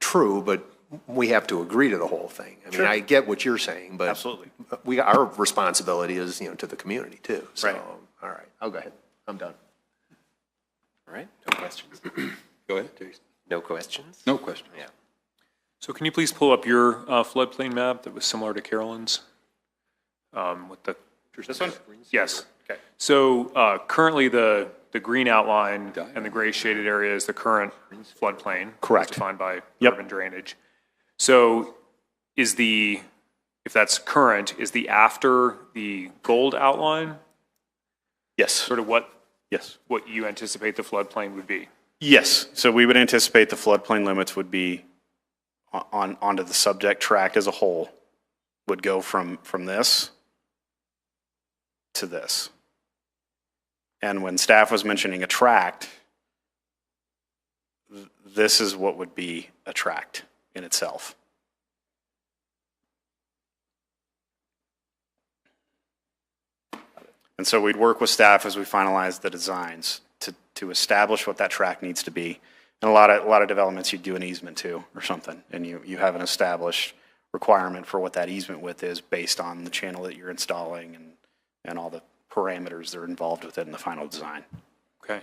true, but we have to agree to the whole thing. I mean, Sure. I get what you're saying, but. Absolutely. We, our responsibility is, you know, to the community too. So, Right. All right, I'll go ahead. I'm done. All right, no questions. Go ahead, Jason. No questions? No question. Yeah. So can you please pull up your uh, floodplain map that was similar to Carolyn's? Um, With the, This one? yes. Okay. So uh, currently, the, the green outline Diagram. and the gray shaded area is the current floodplain. as Correct. Defined by Yep. urban drainage. So is the, if that's current, is the after the gold outline Yes, sort of what, yes. what you anticipate the floodplain would be? Yes, so we would anticipate the floodplain limits would be o- on, onto the subject tract as a whole, would go from, from this to this. And when staff was mentioning a tract, th- this is what would be a tract in itself. And so we'd work with staff as we finalize the designs to, to establish what that track needs to be. And a lot of, a lot of developments, you do an easement to or something, and you, you have an established requirement for what that easement width is based on the channel that you're installing and, and all the parameters that are involved with it in the final design. Okay.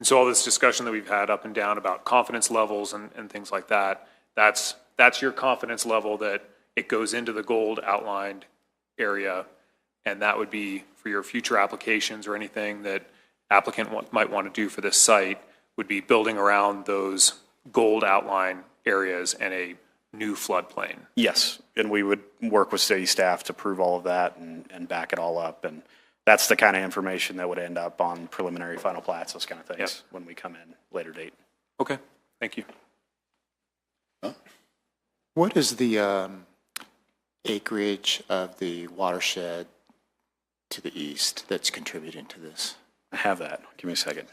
And so all this discussion that we've had up and down about confidence levels and, and things like that, that's, that's your confidence level that it goes into the gold outlined area. And that would be for your future applications or anything that applicant wa- might want to do for this site would be building around those gold outline areas and a new floodplain. Yes, and we would work with city staff to prove all of that and, and back it all up. And that's the kind of information that would end up on preliminary final plats, those kind of things, when we come in later date. Okay, thank you. What is the um, acreage of the watershed to the east that's contributing to this? I have that. Give me a second.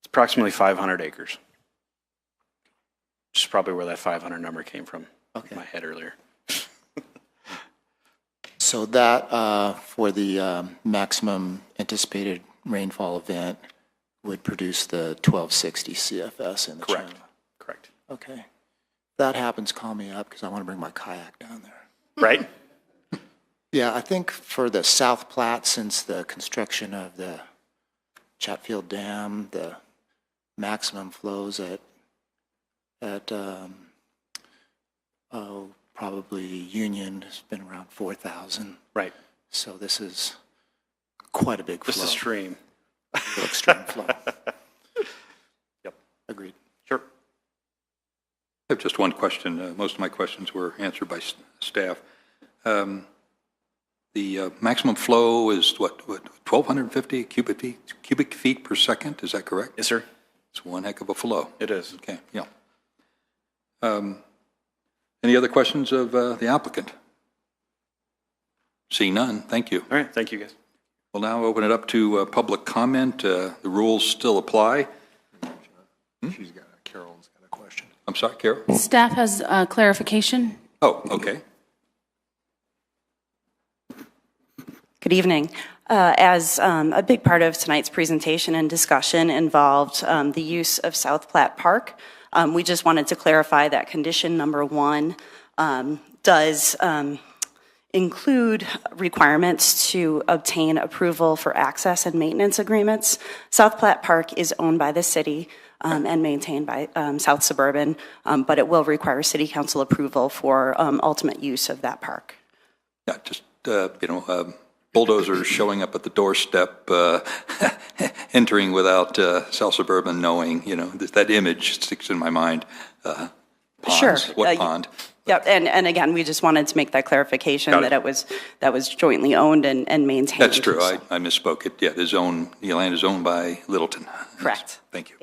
It's approximately 500 acres. Which is probably where that 500 number came from in my head earlier. So that, uh, for the um, maximum anticipated rainfall event, would produce the 1260 CFS in the channel? Correct. Correct. Okay. If That happens, call me up, because I want to bring my kayak down there. Right? Yeah, I think for the South Platte, since the construction of the Chatfield Dam, the maximum flows at, at, um, oh, probably Union has been around four thousand. Right. So this is quite a big flow. Just a stream. Extreme flow. Yep. Agreed. Sure. I have just one question. Uh, Most of my questions were answered by s- staff. Um, The uh, maximum flow is what, what, 1,250 cubic feet, cubic feet per second? Is that correct? Yes, sir. It's one heck of a flow. It is. Okay, yeah. Um, Any other questions of uh, the applicant? See none, thank you. All right. Thank you, guys. We'll now open it up to uh, public comment. Uh, The rules still apply. She's got, a Carolyn's got a question. I'm sorry, Carol? Staff has uh, clarification. Oh, okay. Good evening. Uh, As um, a big part of tonight's presentation and discussion involved um, the use of South Platte Park, um, we just wanted to clarify that condition number one um, does um, include requirements to obtain approval for access and maintenance agreements. South Platte Park is owned by the city um, and maintained by um, South Suburban, um, but it will require city council approval for um, ultimate use of that park. Yeah, just, uh, you know, um, bulldozers showing up at the doorstep, uh, entering without uh, South Suburban knowing, you know, that that image sticks in my mind. Uh, Sure. Ponds, Uh, what you- pond? Yep, and, and again, we just wanted to make that clarification Got it. that it was, that was jointly owned and, and maintained. That's true, I I misspoke. It, yeah, the zone, the land is owned by Littleton. Correct. Thank you.